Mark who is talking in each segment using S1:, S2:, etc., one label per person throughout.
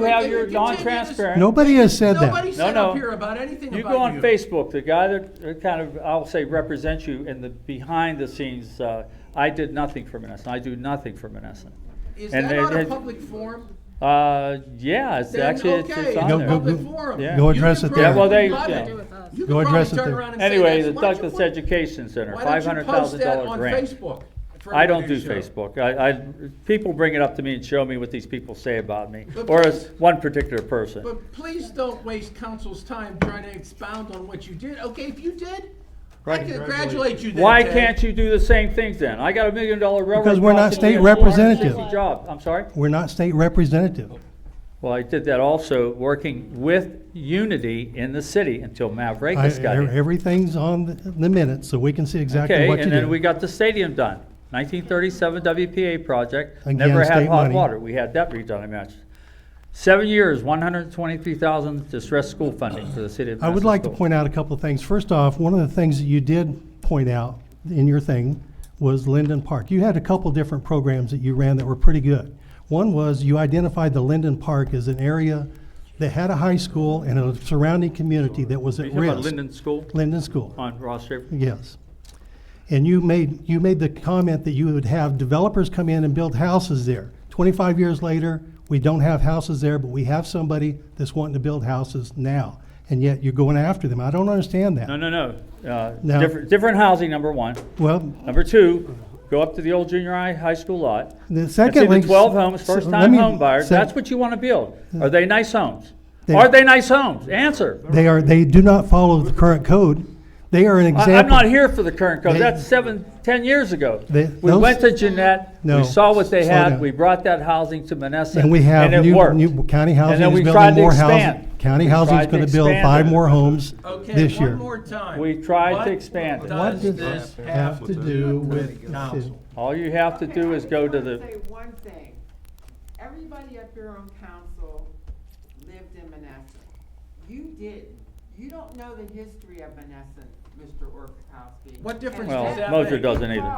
S1: You have
S2: They
S1: your
S2: continue to-
S1: non-transparent-
S3: Nobody has said that.
S2: Nobody said
S1: No, no.
S2: up here about anything about you.
S1: You go on Facebook, the guy that uh, kind of, I'll say, represents you in the behind the scenes, uh, I did nothing for Menneson, I do nothing for Menneson.
S2: Is
S1: and
S2: that
S1: they-
S2: not a
S1: they-
S2: public forum?
S1: Uh, yeah, it's
S2: Then,
S1: actually,
S2: okay,
S1: it's- it's
S2: it's
S1: on
S2: a
S3: Go-
S1: there.
S3: go-
S2: public forum.
S1: Yeah.
S3: Go address it there.
S1: Yeah, well, they- yeah.
S2: You
S3: Go
S2: could probably
S3: address it
S2: turn
S3: there.
S2: around and say
S1: Anyway,
S2: this.
S1: the
S2: Why don't you
S1: Douglas
S2: put-
S1: Education Center,
S2: why
S1: five
S2: don't you
S1: hundred
S2: post
S1: thousand
S2: that
S1: dollar
S2: on
S1: grant.
S2: Facebook for
S1: I don't do
S2: everybody to show?
S1: Facebook, I, I, people bring it up to me and show me what these people say about me,
S2: But
S1: or
S2: please-
S1: as one particular person.
S2: But please don't waste council's time trying to expound on what you did. Okay, if you did, I
S1: Right.
S2: congratulate you then,
S1: Why
S2: Ted.
S1: can't you do the same things then? I got a million dollar railroad.
S3: uh, Because we're not
S1: crossing
S3: state
S1: here, 460
S3: representative.
S1: jobs. I'm sorry?
S3: We're not state representative.
S1: Well, I did that also, working with unity in the city until
S3: I- e,
S1: Mavrekas got here.
S3: Everything's on the- the minute, so we can see exactly
S1: Okay,
S3: what you
S1: and then we
S3: did.
S1: got the stadium done. Nineteen thirty-seven WPA project,
S3: Again,
S1: never had
S3: state
S1: hot
S3: money.
S1: water. We had that redone, I mentioned. Seven years, one hundred and twenty-three thousand distress school funding for the city of
S3: I would
S1: Madison
S3: like to
S1: schools.
S3: point out a couple of things. First off, one of the things that you did point out in your thing was Linden Park. You had a couple different programs that you ran that were pretty good. One was you identified the Linden Park as an area that had a high school and a surrounding community that was
S1: Are you
S3: at
S1: talking about
S3: risk.
S1: Linden School
S3: Linden School.
S1: on Ross River?
S3: Yes. And you made, you made the comment that you would have developers come in and build houses there. Twenty-five years later, we don't have houses there, but we have somebody that's wanting to build houses now. And yet you're going after them. I don't understand
S1: No,
S3: that.
S1: no, no. Uh,
S3: No.
S1: different, different housing, number one.
S3: Well,
S1: Number two, go up to the old junior high, high school lot.
S3: the
S1: And see
S3: secondly.
S1: the twelve homes,
S3: so
S1: first
S3: let
S1: time
S3: me
S1: home buyers,
S3: say-
S1: that's what you wanna build. Are they nice homes?
S3: They-
S1: Are they nice homes? Answer.
S3: They are, they do not follow the current code. They are an
S1: I-
S3: example.
S1: I'm not here for the current code,
S3: They-
S1: that's seven, ten years ago.
S3: They-
S1: We
S3: those-
S1: went to Jeanette, we
S3: No,
S1: saw what they
S3: slow
S1: had,
S3: down.
S1: we brought that housing to Menneson.
S3: And we have
S1: it
S3: new,
S1: worked.
S3: new county
S1: And
S3: housing
S1: then
S3: is
S1: we tried
S3: building
S1: to
S3: more
S1: expand.
S3: housing. County
S1: We
S3: housing
S1: tried
S3: is
S1: to
S3: gonna build
S1: expand
S3: five
S1: it.
S3: more homes this
S2: Okay,
S3: year.
S2: one more time.
S1: We tried to
S2: What
S1: expand it.
S2: does
S3: What does
S2: this
S3: this have to do with council?
S1: All you have to
S4: Okay,
S1: do
S4: I
S1: is
S4: just
S1: go to
S4: wanna
S1: the,
S4: Say one thing. Everybody up here on council lived in Menneson. You didn't. You don't know the history of Menneson, Mr. Orchowski.
S2: What difference
S4: And
S1: Well,
S4: that's
S1: Moser
S4: because
S1: doesn't either.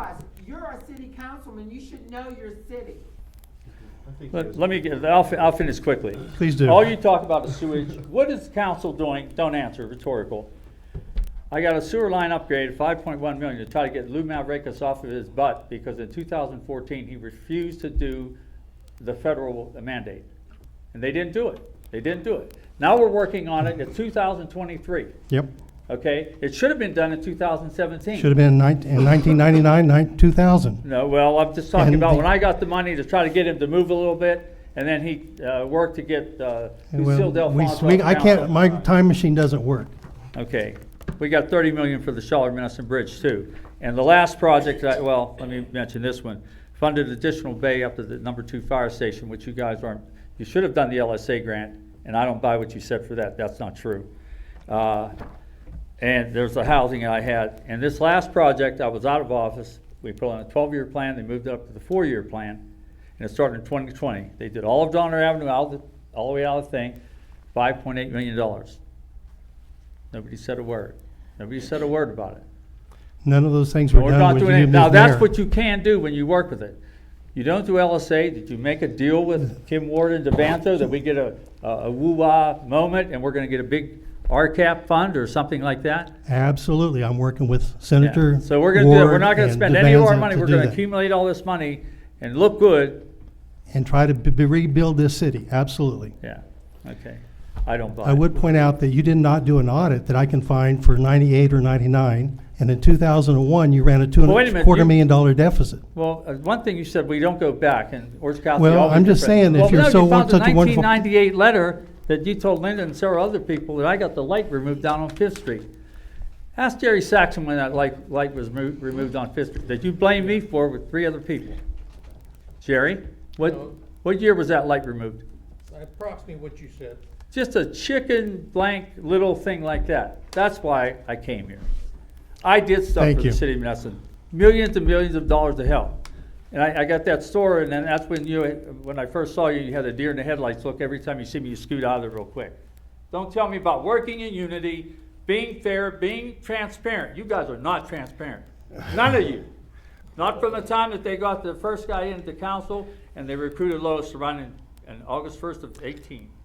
S4: You're a city councilman. You should know your city.
S1: let let me, get- I'll, fi- I'll finish quickly.
S3: Please do.
S1: All you talk about is sewage. What is council doing? Don't answer, rhetorical. I got a sewer line upgrade, five point one million, to try to get Lou Mavrekas off of his butt, because in two thousand fourteen, he refused to do the federal mandate. And they didn't do it. They didn't do it. Now we're working on it in two thousand twenty-three,
S3: Yep.
S1: okay? It should have been done in two thousand seventeen.
S3: Should have been in nineteen- in 1999, nine- 2000.
S1: No, well, I'm just talking
S3: And
S1: about
S3: the-
S1: when I got the money to try to get him to move a little bit, and then he, uh, worked to get, uh, Lucille
S3: Well, we-
S1: Delphonse.
S3: we-
S1: off
S3: I
S1: council.
S3: can't, my time machine doesn't work.
S1: Okay, we got thirty million for the Charlotte Menneson Bridge too. And the last project, that- well, let me mention this one, funded additional bay up to the number two fire station, which you guys aren't, you should have done the LSA grant, and I don't buy what you said for that, that's not true. Uh, And there's the housing I had, and this last project, I was out of office, we put on a twelve-year plan, they moved it up to the four-year plan, and it started in twenty twenty. They did all of Donner Avenue, all the, all the way out of the thing, five point eight million dollars. Nobody said a word. Nobody said a word about it.
S3: None of those things
S1: And
S3: were
S1: We're not
S3: done with you
S1: doing it.
S3: being
S1: Now, that's
S3: there.
S1: what you can do when you work with it. You don't do LSA. Did you make a deal with Kim Ward and Devanto that we get a, a a woo-wah moment and we're gonna get a big RCAP fund or something like that?
S3: Absolutely, I'm working with
S1: Yeah.
S3: Senator
S1: So we're gonna do that. We're
S3: Ward
S1: not gonna
S3: and
S1: spend any of our
S3: DeVanza
S1: money.
S3: to
S1: We're
S3: do
S1: gonna
S3: that.
S1: accumulate all this money and look good.
S3: And try to b- b- rebuild this city, absolutely.
S1: Yeah, okay. I don't buy it.
S3: I would point out that you did not do an audit that I can find for 98 or 99, and in 2001, you ran a two and
S1: Wait a
S3: a
S1: minute,
S3: quarter
S1: you-
S3: million dollar deficit.
S1: Well, uh, one thing you said, we don't go back, and Orange County.
S3: Well,
S1: always
S3: I'm just
S1: different.
S3: saying, if
S1: Well,
S3: you're
S1: no,
S3: so
S1: found the
S3: such a wonderful-
S1: 1998 letter that you told Linda and several other people that I got the light removed down on Fifth Street. Ask Jerry Saxon when that light, light was mo- removed on Fifth Street, that you blamed me for with three other people. Jerry, what,
S5: No.
S1: what year was that light removed?
S5: Approximately what you said.
S1: Just a chicken blank little thing like that. That's why I came here. I did stuff
S3: Thank
S1: for the
S3: you.
S1: city of Menneson, millions and millions of dollars to help. And I, I got that store, and then that's when you, when I first saw you, you had a deer in the headlights look. Every time you see me, you scoot out of there real quick. Don't tell me about working in unity, being fair, being transparent. You guys are not transparent. None of you. Not from the time that they got the first guy into council and they recruited Lois surrounding and August first of eighteen.